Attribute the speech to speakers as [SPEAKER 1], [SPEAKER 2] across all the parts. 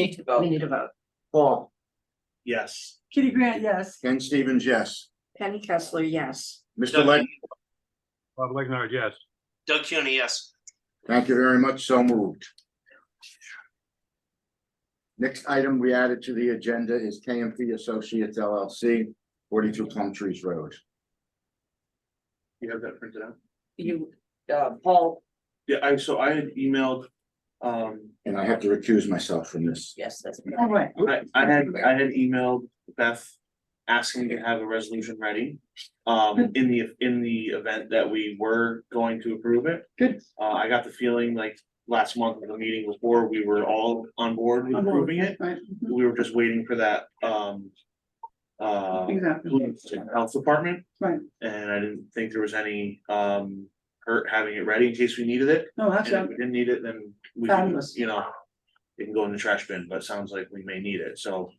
[SPEAKER 1] Need to
[SPEAKER 2] We
[SPEAKER 1] vote.
[SPEAKER 2] need to vote.
[SPEAKER 3] Paul,
[SPEAKER 4] Yes.
[SPEAKER 2] Kitty Grant, yes.
[SPEAKER 3] Ken Stevens, yes.
[SPEAKER 1] Penny Kessler, yes.
[SPEAKER 3] Mr. Leg,
[SPEAKER 5] Bob Legnard, yes.
[SPEAKER 4] Doug Cuny, yes.
[SPEAKER 3] thank you very much. So moved. Next item we added to the agenda is KMP Associates LLC, forty-two Plum Trees Road.
[SPEAKER 4] You have that printed out?
[SPEAKER 1] You, uh, Paul,
[SPEAKER 4] Yeah, I, so I had emailed, um,
[SPEAKER 3] And I have to recuse myself from this.
[SPEAKER 1] yes, that's.
[SPEAKER 2] All right.
[SPEAKER 4] I, I had, I had emailed Beth asking to have a resolution ready. Um, in the, in the event that we were going to approve it.
[SPEAKER 2] Good.
[SPEAKER 4] Uh, I got the feeling like last month of the meeting before, we were all on board with approving it.
[SPEAKER 2] Right.
[SPEAKER 4] We were just waiting for that, um, uh,
[SPEAKER 2] Exactly.
[SPEAKER 4] health department.
[SPEAKER 2] Right.
[SPEAKER 4] And I didn't think there was any, um, hurt having it ready in case we needed it.
[SPEAKER 2] No,
[SPEAKER 4] And if
[SPEAKER 2] actually,
[SPEAKER 4] we didn't need it, then we can,
[SPEAKER 2] Fabulous.
[SPEAKER 4] you know, it can go in the trash bin, but it sounds like we may need it, so.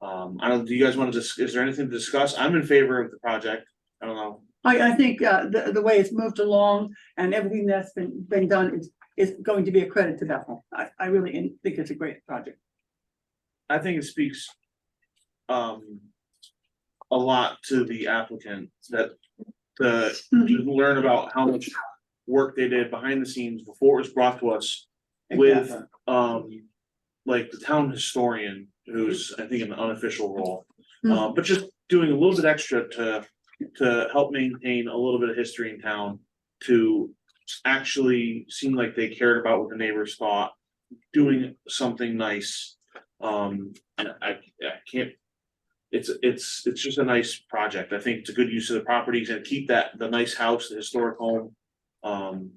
[SPEAKER 4] Um, I don't, do you guys wanna just, is there anything to discuss? I'm in favor of the project. I don't know.
[SPEAKER 2] I, I think, uh, the, the way it's moved along and everything that's been, been done is, is going to be a credit to Bethel. I, I really in- think it's a great project.
[SPEAKER 4] I think it speaks. Um. A lot to the applicant that the
[SPEAKER 2] Mhm.
[SPEAKER 4] to learn about how much work they did behind the scenes before it was brought to us. With,
[SPEAKER 2] Exactly.
[SPEAKER 4] um, like the town historian, who's, I think, in an unofficial role.
[SPEAKER 2] Hmm.
[SPEAKER 4] Uh, but just doing a little bit extra to, to help maintain a little bit of history in town. To actually seem like they cared about what the neighbors thought, doing something nice. Um, and I, I can't. It's, it's, it's just a nice project. I think it's a good use of the properties and keep that, the nice house, the historic home. Um,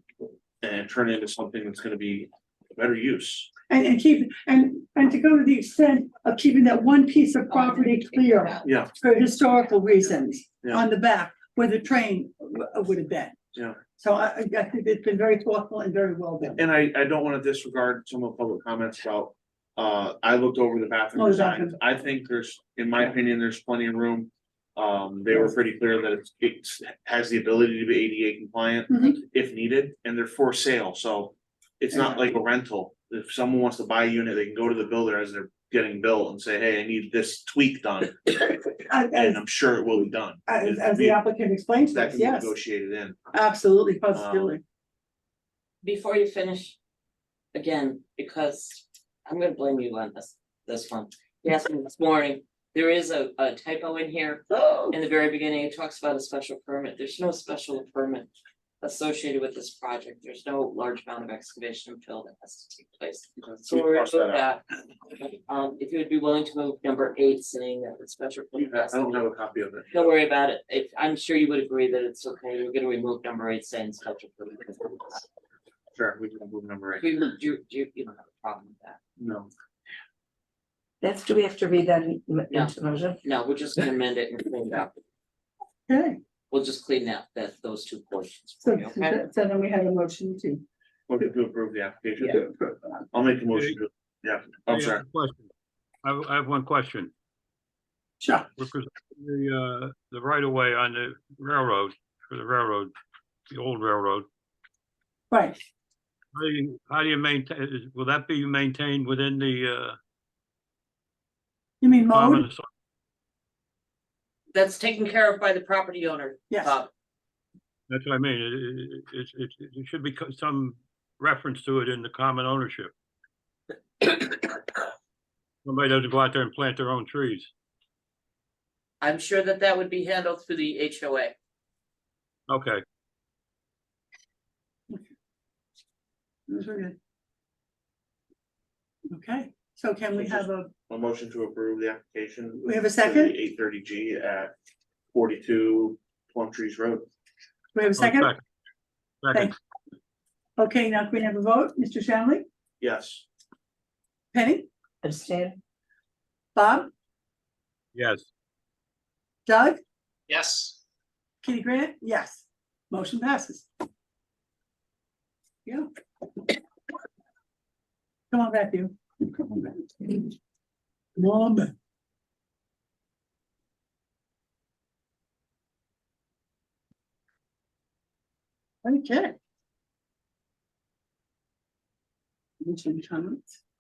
[SPEAKER 4] and turn it into something that's gonna be a better use.
[SPEAKER 2] And, and keep, and, and to go to the extent of keeping that one piece of property clear
[SPEAKER 4] Yeah,
[SPEAKER 2] for historical reasons
[SPEAKER 4] Yeah.
[SPEAKER 2] on the back where the train w- would have been.
[SPEAKER 4] Yeah.
[SPEAKER 2] So I, I- I think it's been very thoughtful and very well done.
[SPEAKER 4] and I, I don't wanna disregard some of the public comments about, uh, I looked over the bathroom
[SPEAKER 2] Oh, the
[SPEAKER 4] designs.
[SPEAKER 2] bathroom.
[SPEAKER 4] I think there's, in my opinion, there's plenty of room. Um, they were pretty clear that it's, it's, has the ability to be ADA compliant
[SPEAKER 2] Mhm.
[SPEAKER 4] if needed, and they're for sale, so. It's not like a rental. If someone wants to buy a unit, they can go to the builder as they're getting built and say, hey, I need this tweak done,
[SPEAKER 2] As,
[SPEAKER 4] and I'm sure it will be done.
[SPEAKER 2] as,
[SPEAKER 4] It'd
[SPEAKER 2] as
[SPEAKER 4] be-
[SPEAKER 2] the applicant explains
[SPEAKER 4] That
[SPEAKER 2] this,
[SPEAKER 4] can be
[SPEAKER 2] yes,
[SPEAKER 4] negotiated Um, in.
[SPEAKER 2] absolutely, positively.
[SPEAKER 1] Before you finish, again, because I'm gonna blame you on this, this one. You asked me this morning, there is a, a typo in here. In the very beginning, it talks about a special permit. There's no special permit associated with this project. There's no large amount of excavation and fill that has to take place. So
[SPEAKER 4] We
[SPEAKER 1] we're gonna
[SPEAKER 4] crossed
[SPEAKER 1] move
[SPEAKER 4] that out.
[SPEAKER 1] that. Um, if you would be willing to move number eight, saying that the special permit.
[SPEAKER 4] I don't have a copy of it.
[SPEAKER 1] Don't worry about it. If, I'm sure you would agree that it's okay. We're gonna remove number eight saying special permit.
[SPEAKER 4] Sure, we can move number eight.
[SPEAKER 1] We, would- you, you, you don't have a problem with that.
[SPEAKER 4] No.
[SPEAKER 6] That's, do we have to read that in-
[SPEAKER 1] No.
[SPEAKER 6] into motion?
[SPEAKER 1] No, we're just gonna amend it and clean it up.
[SPEAKER 2] Okay,
[SPEAKER 1] We'll just clean that, that, those two portions. for
[SPEAKER 2] so,
[SPEAKER 1] you, okay?
[SPEAKER 2] so then we had a motion to.
[SPEAKER 4] Motion to approve the application.
[SPEAKER 2] to approve that.
[SPEAKER 4] I'll make a motion to, yeah,
[SPEAKER 5] I
[SPEAKER 4] I'm Oh,
[SPEAKER 5] have
[SPEAKER 4] sorry.
[SPEAKER 5] a question. I, have- I have one question.
[SPEAKER 2] Sure,
[SPEAKER 5] We're presenting The, uh, the right of way on the railroad, for the railroad, the old railroad.
[SPEAKER 2] right,
[SPEAKER 5] How do you, how do you maintain, is- will that be maintained within the, uh?
[SPEAKER 2] you mean mode?
[SPEAKER 5] common-
[SPEAKER 1] That's taken care of by the property owner,
[SPEAKER 2] Yes,
[SPEAKER 4] Uh,
[SPEAKER 1] Bob.
[SPEAKER 5] That's what I mean. It, it, it, it- it should be co- some reference to it in the common ownership. Somebody doesn't go out there and plant their own trees.
[SPEAKER 1] I'm sure that that would be handled through the HOA.
[SPEAKER 5] Okay,
[SPEAKER 2] Those were good. Okay, so can we have a,
[SPEAKER 4] A motion to approve the application.
[SPEAKER 2] We have a second?
[SPEAKER 4] Eight thirty G at forty-two Plum Trees Road.
[SPEAKER 2] we have a
[SPEAKER 5] Oh,
[SPEAKER 2] second?
[SPEAKER 5] sec- Second,
[SPEAKER 2] Thank- Okay, now can we have a vote? Mr. Shanley,
[SPEAKER 4] Yes.
[SPEAKER 2] Penny,
[SPEAKER 6] Abstain?
[SPEAKER 2] Bob,
[SPEAKER 5] yes.
[SPEAKER 2] Doug,
[SPEAKER 4] Yes.
[SPEAKER 2] Kitty Grant, yes. Motion passes. Yeah. Come on back, you. Come on back. Come on back. Okay. Any comments?